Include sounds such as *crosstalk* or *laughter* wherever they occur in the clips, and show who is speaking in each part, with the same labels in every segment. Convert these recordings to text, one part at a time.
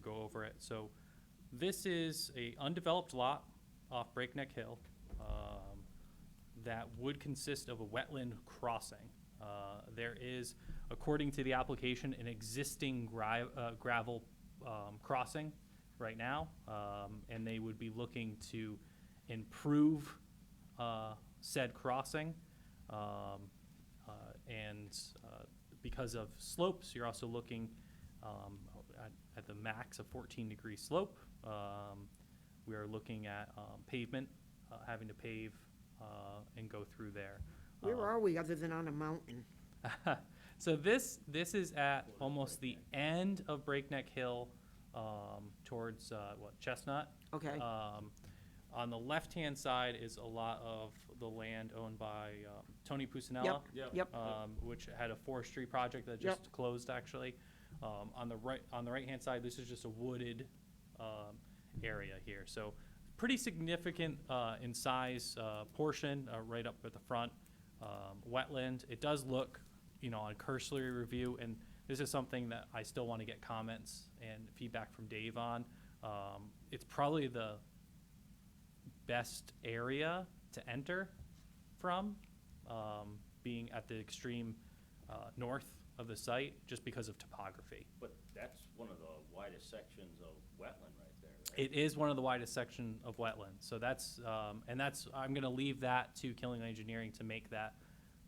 Speaker 1: go over it. So this is a undeveloped lot off Breakneck Hill um, that would consist of a wetland crossing. Uh, There is, according to the application, an existing gri- uh, gravel um, crossing right now, um, and they would be looking to improve uh, said crossing. Um, uh, And uh, because of slopes, you're also looking um, at- at the max of 14-degree slope. Um, We are looking at um, pavement, uh, having to pave uh, and go through there.
Speaker 2: Where
Speaker 1: Um,
Speaker 3: Uh,
Speaker 2: are we other than on a mountain?
Speaker 1: so this this is at almost the end of Breakneck Hill, um, towards uh, what Chestnut.
Speaker 2: Okay.
Speaker 3: uh,
Speaker 1: Um, on the left-hand side is a lot of the land owned by um, Tony Pusinella
Speaker 2: Yep,
Speaker 3: Yep.
Speaker 2: yep.
Speaker 1: um, which had a forestry project that
Speaker 2: Yep.
Speaker 1: just closed actually. Um, on the right, on the right-hand side, this is just a wooded, um, area here, so pretty significant, uh, in size, uh, portion, uh, right up at the front. Um, wetland, it does look, you know, on cursory review, and this is something that I still wanna get comments and feedback from Dave on. Um, it's probably the best area to enter from, um, being at the extreme uh, north of the site, just because of topography.
Speaker 3: But that's one of the widest sections of wetland right there, right?
Speaker 1: It is one of the widest section of wetland, so that's, um, and that's, I'm gonna leave that to Killing Engineering to make that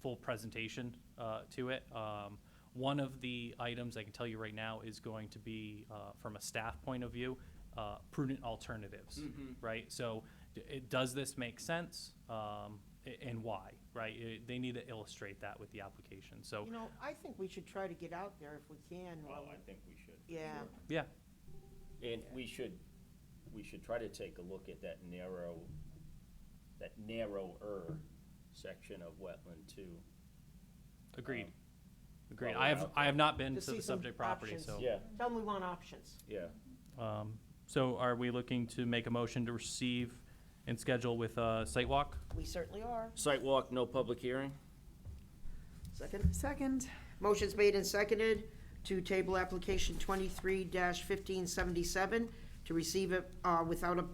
Speaker 1: full presentation uh, to it. Um, One of the items I can tell you right now is going to be, uh, from a staff point of view, uh, prudent alternatives, right? So, d- it, does this make sense, um, a- and why, right? It- They need to illustrate that with the application, so,
Speaker 2: You know, I think we should try to get out there if we can.
Speaker 3: Well,
Speaker 2: while-
Speaker 3: I think we should.
Speaker 2: Yeah,
Speaker 1: yeah,
Speaker 3: And we should, we should try to take a look at that narrow, that narrower section of wetland too.
Speaker 1: agreed.
Speaker 3: Um,
Speaker 1: Agreed,
Speaker 3: while we're
Speaker 1: I have,
Speaker 3: out
Speaker 1: I have not been
Speaker 2: To
Speaker 1: to
Speaker 2: see
Speaker 1: the
Speaker 2: some
Speaker 1: subject property,
Speaker 2: options.
Speaker 1: so.
Speaker 3: Yeah,
Speaker 2: tell them we want options.
Speaker 3: yeah.
Speaker 1: Um, So are we looking to make a motion to receive and schedule with a site walk?
Speaker 2: We certainly are.
Speaker 3: Site walk, no public hearing?
Speaker 2: Second?
Speaker 4: Second,
Speaker 2: Motion's made and seconded to table application twenty-three fifteen seventy-seven to receive it, uh, without a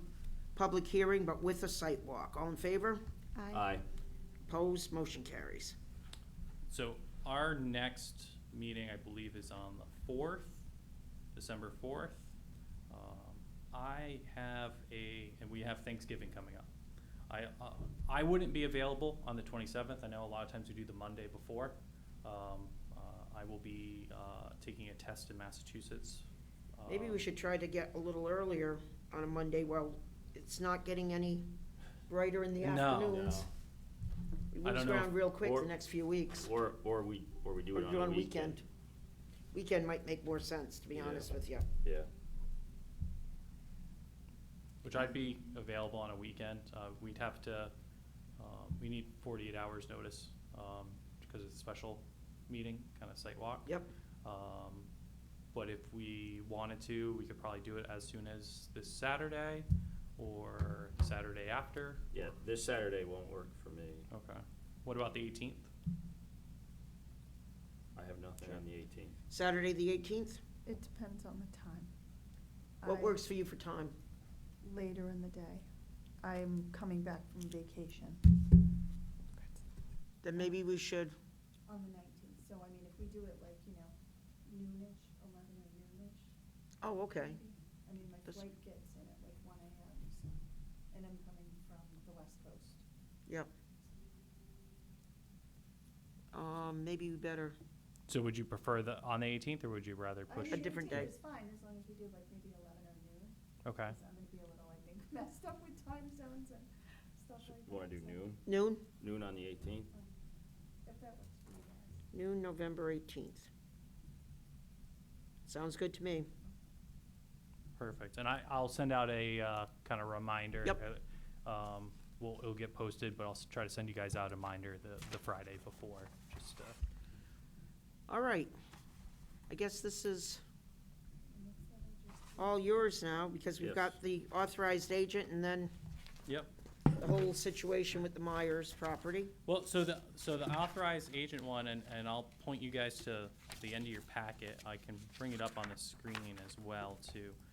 Speaker 2: public hearing, but with a site walk. All in favor? Uh,
Speaker 4: aye.
Speaker 3: Aye.
Speaker 2: Opposed? Motion carries.
Speaker 1: So our next meeting, I believe, is on the 4th, December 4th. Um, I have a, and we have Thanksgiving coming up. I, uh, I wouldn't be available on the 27th. I know a lot of times we do the Monday before. Um, uh, I will be uh, taking a test in Massachusetts.
Speaker 2: Maybe
Speaker 1: um,
Speaker 2: we should try to get a little earlier on a Monday while it's not getting any brighter in the
Speaker 1: No.
Speaker 2: afternoons.
Speaker 3: No.
Speaker 2: We
Speaker 1: I
Speaker 2: lose
Speaker 1: don't know if-
Speaker 2: ground real quick
Speaker 3: or-
Speaker 2: the next few weeks.
Speaker 3: Or, or we, or we do
Speaker 2: Or
Speaker 3: it on a
Speaker 2: weekend. Weekend might make more sense, to be
Speaker 3: Yeah.
Speaker 2: honest with you.
Speaker 3: Yeah.
Speaker 1: Which I'd be available on a weekend. Uh, we'd have to, um, we need forty-eight hours notice, um, because it's a special meeting, kind of site walk.
Speaker 2: Yep,
Speaker 1: Um, but if we wanted to, we could probably do it as soon as this Saturday or Saturday after.
Speaker 3: Yeah, this Saturday won't work for me.
Speaker 1: Okay. What about the eighteenth?
Speaker 3: I have nothing on the eighteenth.
Speaker 2: Saturday, the eighteenth?
Speaker 4: It depends on the time.
Speaker 2: What
Speaker 4: I-
Speaker 2: works for you for time?
Speaker 4: Later in the day. I'm coming back from vacation.
Speaker 2: Then maybe we should,
Speaker 4: On the nineteenth, so I mean, if we do it like, you know, noonish, eleven or noonish.
Speaker 2: oh, okay.
Speaker 4: I mean, my
Speaker 2: That's-
Speaker 4: flight gets in at like one AM, so, and I'm coming from the west coast.
Speaker 2: Yep. Um, maybe we better,
Speaker 1: So would you prefer the, on the eighteenth, or would you rather
Speaker 4: I
Speaker 1: push?
Speaker 4: mean,
Speaker 2: different
Speaker 4: 18
Speaker 2: day.
Speaker 4: is fine, as long as we do like maybe eleven or noon.
Speaker 1: Okay,
Speaker 4: 'cause I'm gonna be a little, I think, *laughs* messed up with time zones and stuff like that.
Speaker 3: Wanna do
Speaker 4: so
Speaker 3: noon?
Speaker 2: noon?
Speaker 3: Noon on the eighteenth?
Speaker 4: If that works for you guys.
Speaker 2: Noon, November eighteenth. Sounds good to me.
Speaker 1: perfect. And I, I'll send out a, uh, kind of reminder.
Speaker 2: Yep.
Speaker 1: uh, Um, will, it'll get posted, but I'll s- try to send you guys out a reminder the, the Friday before, just, uh,
Speaker 2: All right. I guess this is
Speaker 4: And that's that I just-
Speaker 2: all yours now, because we've
Speaker 3: Yes.
Speaker 2: got the authorized agent and then
Speaker 1: Yep.
Speaker 2: the whole situation with the Myers property.
Speaker 1: Well, so the, so the authorized agent one, and, and I'll point you guys to the end of your packet. I can bring it up on the screen as well, too.